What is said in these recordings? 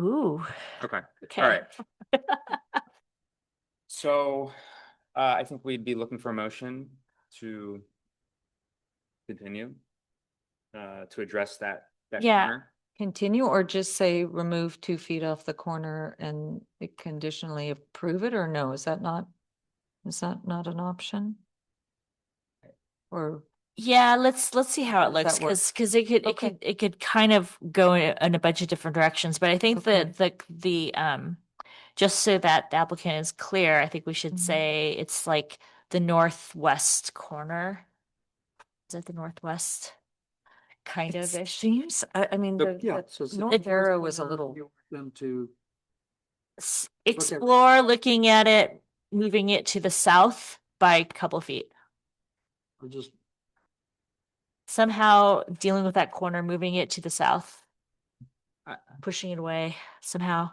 Ooh. Okay, Okay. all right. So uh, I think we'd be looking for a motion to continue uh, to address that. that Yeah. corner. Continue or just say remove two feet off the corner and it conditionally approve it or no? Is that not? Is that not an option? Or, Yeah, let's, let's see how it Does that looks, work? cause, 'cause it could, it Okay. could, it could kind of go in in a bunch of different directions, but I think Okay. that the, the, um. Just so that the applicant is clear, I think we should Mhm. say it's like the northwest corner. Is it the northwest? Kind it of ish, seems, I, I mean, The- the, Yeah. the so it's- north arrow was a little, You want Them to, S- at- explore looking at it, moving it to the south by a couple feet. or just, Somehow dealing with that corner, moving it to the south. I- Pushing it away somehow.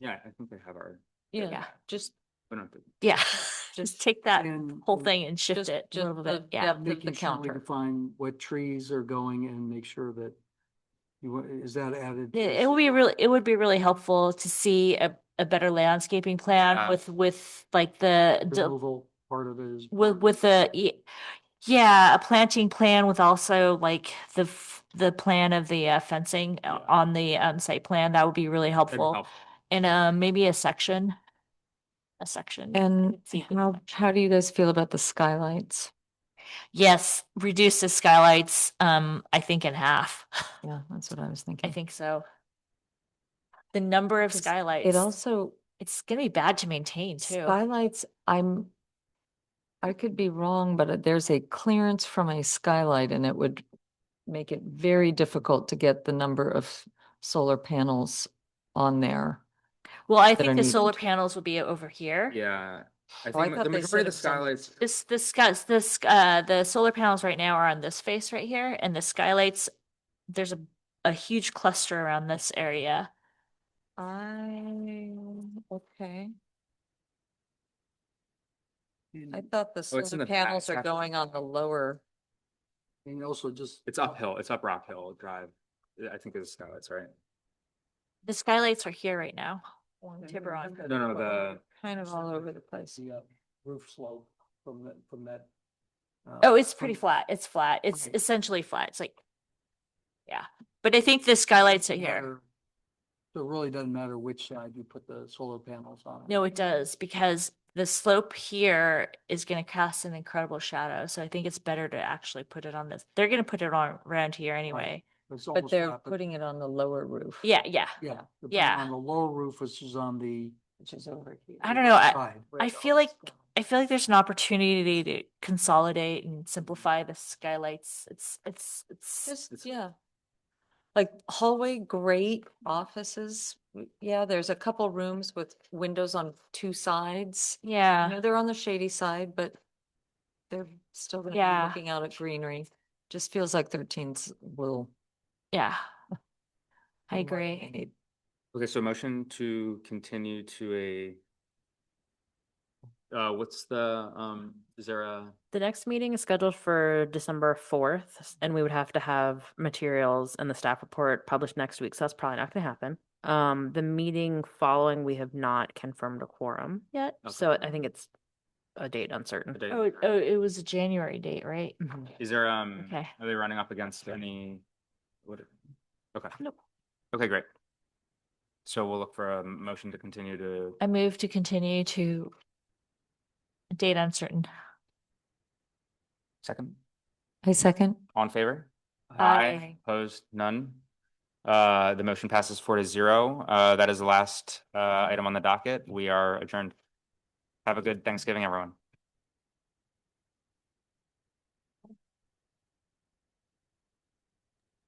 Yeah, I think they have our. yeah, Yeah. just, we don't have to- Yeah, just Just- take that and. whole thing and shift just- it a just little the bit. Yeah, depth of the Making sure we counter. define what trees are going and make sure that you, wa- is that added? to it this? it would be really, it would be really helpful to see a, a better landscaping plan Ah. Yeah. with, with like the, d- Removal part of it is. with, with the, y- yeah, a planting plan with also like the, f- the plan of the uh, fencing o- Yeah. on the um, site plan. That would be really that'd be helpful. helpful. And uh, maybe a section, a section. and see if we how, how do you guys feel about the skylights? Yes, reduce the skylights, um, I think in half. Yeah, that's what I was I thinking. think so. The number of 'Cause skylights. It also, it's gonna be bad to maintain too. Skylights, I'm, I could be wrong, but uh, there's a clearance from a skylight and it would make it very difficult to get the number of solar panels on there. Well, I that are think the solar needed. panels would be over here. Yeah, I Oh, I think thought the they majority of said the it was on- skylights, This, this, sky- this, sk- uh, the solar panels right now are on this face right here and the skylights, there's a, a huge cluster around this area. I, okay. I And thought the Oh, it's in solar the back, panels are actually. going on the lower. and also just. it's uphill, it's up Rock Hill Drive. I think it's skylights, right? The skylights are here right now. along and- and Tiburon. that- No, no, the, Kind of all Something over the like place. The uh, roof slope from that, from that. uh, Oh, it's pretty from- flat. It's flat. It's Okay. essentially flat. It's like, yeah, but I think the skylights are doesn't here. matter- So it really doesn't matter which side you put the solar panels on. No, it does because the slope here is going to cast an incredible shadow. So I think it's better to actually put it on this. They're going to put it on around here anyway. It's But almost they're not, putting it on the lower roof. Yeah, yeah. Yeah. they're putting it yeah. On the lower roof, which is on the. Which is over here. I don't know. I, side. I feel like, I feel like there's an opportunity to consolidate and simplify the skylights. It's, it's, it's, Just, yeah. Like hallway, great offices. w- Yeah, there's a couple rooms with windows on two sides. I yeah. know they're on the shady side, but they're still gonna Yeah. be looking out at greenery. Just feels like thirteens will. Yeah. I be what they agree. need. okay, so motion to continue to a uh, what's the, um, is there a? The next meeting is scheduled for December fourth, and we would have to have materials and the staff report published next week, so that's probably not gonna happen. Um, the meeting following, we have not confirmed a quorum yet, Okay. so I think it's a date uncertain. a date? Oh, it- oh, it was a January date, right? Mhm. Is there, um, Okay. are they running up against any? What? Okay. Nope. Okay, great. So we'll look for a motion to continue to, I move to continue to date uncertain. second, I second. on favor? Aye. Opposed, none? Uh, the motion passes four to zero. Uh, that is the last, uh, item on the docket. We are adjourned. Have a good Thanksgiving, everyone.